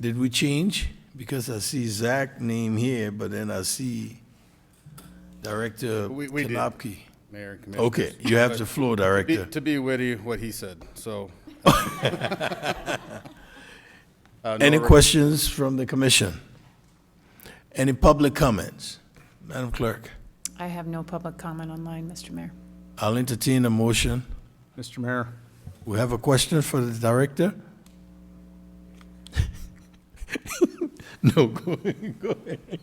Did we change? Because I see Zach name here, but then I see Director We- we did. Kanapki. Mayor and Commissioners. Okay, you have the floor, Be- Director. To be witty, what he said, so. Uh, no Any re- questions from the commission? Any public comments? Madam Clerk, I have no public comment online, Mr. Mayor. I'll entertain a motion. Mr. Mayor, We have a question for the director? No, go ahead, go ahead.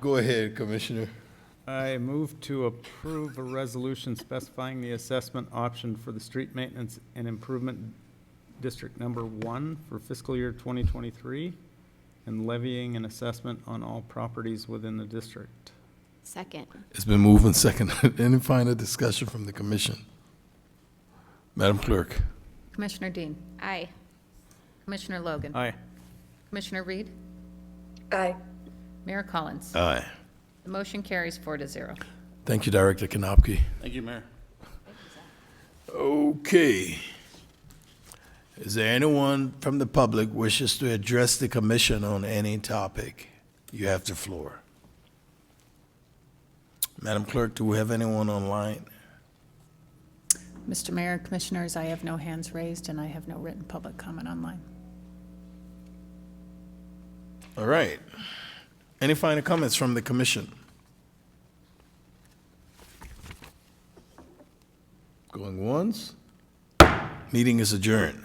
Go ahead, Commissioner. I move to approve a resolution specifying the assessment option for the street maintenance and improvement district number one for fiscal year 2023 and levying an assessment on all properties within the district. Second. It's been moved and seconded. Any final discussion from the commission? Madam Clerk? Commissioner Dean. Aye. Commissioner Logan. Aye. Commissioner Reed. Aye. Mayor Collins. Aye. The motion carries four to zero. Thank you, Director Kanopki. Thank you, Mayor. Okay. Is there anyone from the public wishes to address the commission on any topic? You have the floor. Madam Clerk, do we have anyone online? Mr. Mayor, Commissioners, I have no hands raised, and I have no written public comment online. All right. Any final comments from the commission? Going once? Meeting is adjourned.